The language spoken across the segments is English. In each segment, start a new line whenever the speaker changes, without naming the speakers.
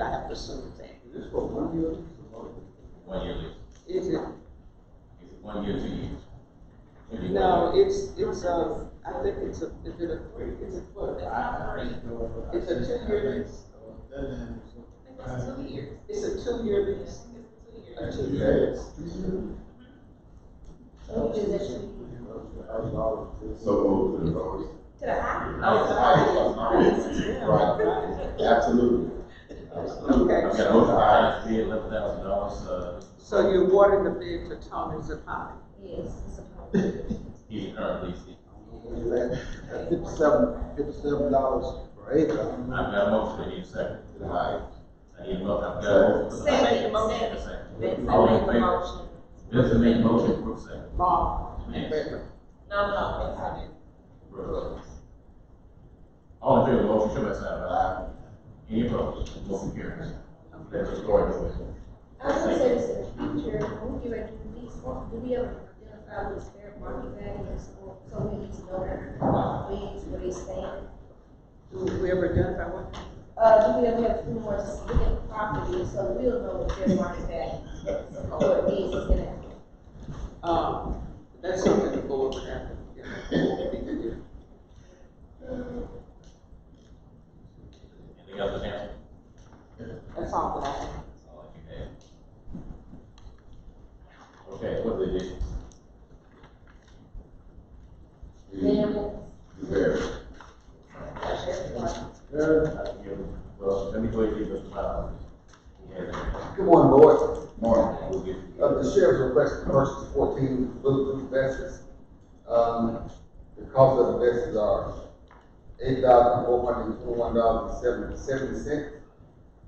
die for something.
Is this for one year?
One year lease.
Is it?
Is it one year, two years? Maybe one
No,
year.
it's, it's a, I think it's a, is it a three, it's a twelve? It's a two-year lease.
It's two years.
It's a two-year lease. A
It's two years.
two year.
Yes.
So moved to the vote.
To the high.
Right. Absolutely.
Okay.
I've got a motion by Hines, eleven thousand dollars, uh,
So you're awarding the bid to Tony Zapata.
Yes, it's a problem.
he's currently, leasing.
Fifty-seven, fifty-seven dollars per acre.
I've got a motion, I need a second.
Aye.
I need a motion, I've got a motion.
Second,
Make a motion.
second.
Second.
Vince,
All
I
in
make a
favor?
motion.
Vincent made a motion, Brooks second.
Mark.
Yes.
No, no, it's not.
Brooks. All in favor of the motion, show by sign of aye. Any opposed? Motion carries. That's a story, no way.
I was gonna say this in the future, when we get ready to release, do we ever identify what its fair market value is, or so we need to know what leads, where they stand?
Do we ever identify what?
Uh, do we ever have two more just look at the property, so we'll know what fair market value is, or it needs to get?
Um, that's something the board would have to, you know, we can do.
Anything else, Mr. Hampton?
That's all that I have.
That's all I can add. Okay, what did they do?
Then,
Very.
Good
I can give, well, let me go ahead and give Mr. Miles. He has it.
morning, board.
Morning.
We'll get.
Uh, the sheriff's request to purchase fourteen bulletproof vests. Um, the cost of the vests are eight thousand four hundred and twenty-one dollars and seventy, seventy cents.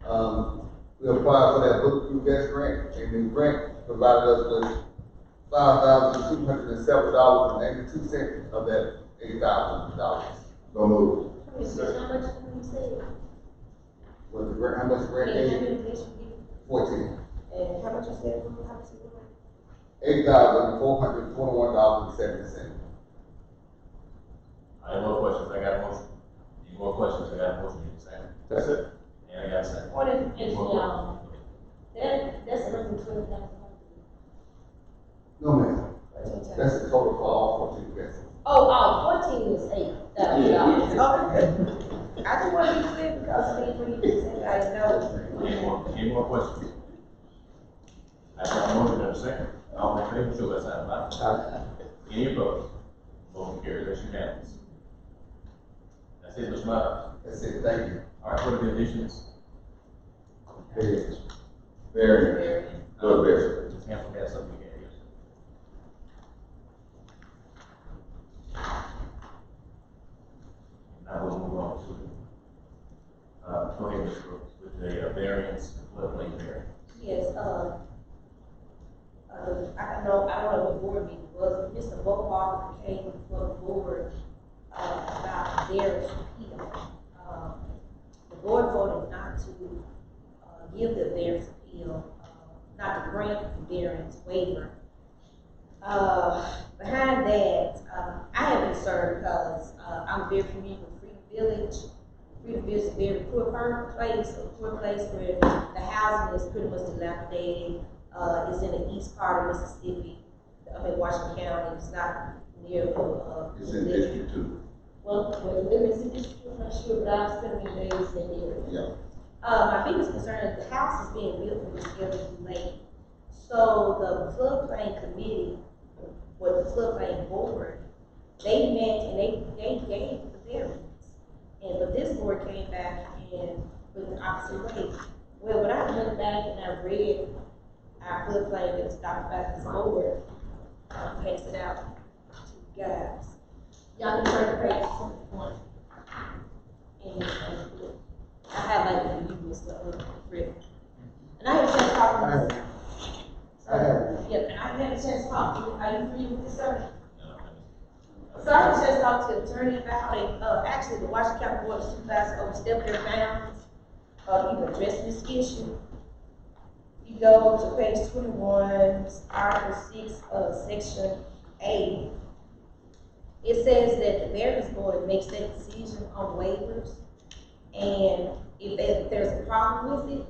Um, we applied for that bulletproof vest grant, and the grant provided us with five thousand two hundred and seven dollars and eighty-two cents of that eight thousand dollars.
So moved.
Commissioners, how much can we say?
Was the grant, how much grant is
Eight
it?
hundred, they should give,
Fourteen.
and how much is that, how much is it?
Eight thousand four hundred twenty-one dollars and seventy cents.
I have more questions, I got a motion. Any more questions, I got a motion, you second.
That's it.
And I got a second.
What is,
Any more questions?
that, that's another twelve thousand.
No, ma'am. That's the total for all fourteen vessels.
Oh, oh, fourteen is eight thousand dollars. Okay. I just wanted to be clear because I think when you said, I know.
Any more, any more questions? I got a motion, and a second. All in favor, show by sign of aye. Any opposed? Motion carries, that's unanimous. That's it, Mr. Miles.
That's it, thank you.
All right, what are the additions?
Very. Very. Go ahead.
Ms. Hampton has something to add. Now we'll move on to, uh, go ahead with, with the uh, variance, floodplain variance.
Yes, uh, uh, I don't know, I don't know what board meeting it was, but Mr. Bohart came before the board, uh, about their appeal. Uh, The board voted not to, uh, give the variance appeal, uh, not to grant the variance waiver. Uh, behind that, uh, I have been served because, uh, I'm very familiar with Freedom Village. Freedom Village is a very poor per- place, a poor place where the housing is pretty much dilapidated, uh, it's in the east part of Mississippi, I mean, Washington County, it's not near, uh.
It's in District Two.
Well, well, let me see, this is not sure, but I've spent many days in here.
Yeah.
Uh, my biggest concern is the house is being built and it's getting too late. So the floodplain committee, with the floodplain board, they met and they, they gave the variance. And, but this board came back and went the opposite way. Well, when I went back and I read our floodplain that was adopted by this board, I passed it out to you guys. Y'all can turn the page to one. And, uh, I had like the usual stuff, uh, Rick. And I had a chance to talk to this.
I have.
Yeah, and I had a chance to talk to, are you agree with this, sir?
Uh,
So I had a chance to talk to the attorney about how they, uh, actually, the Washington County Board of Supervisors overstepped their bounds, uh, even addressing this issue. You go to page twenty-one, article six, uh, section A. It says that the variance board makes that decision on waivers, and If they, if there's a problem with it,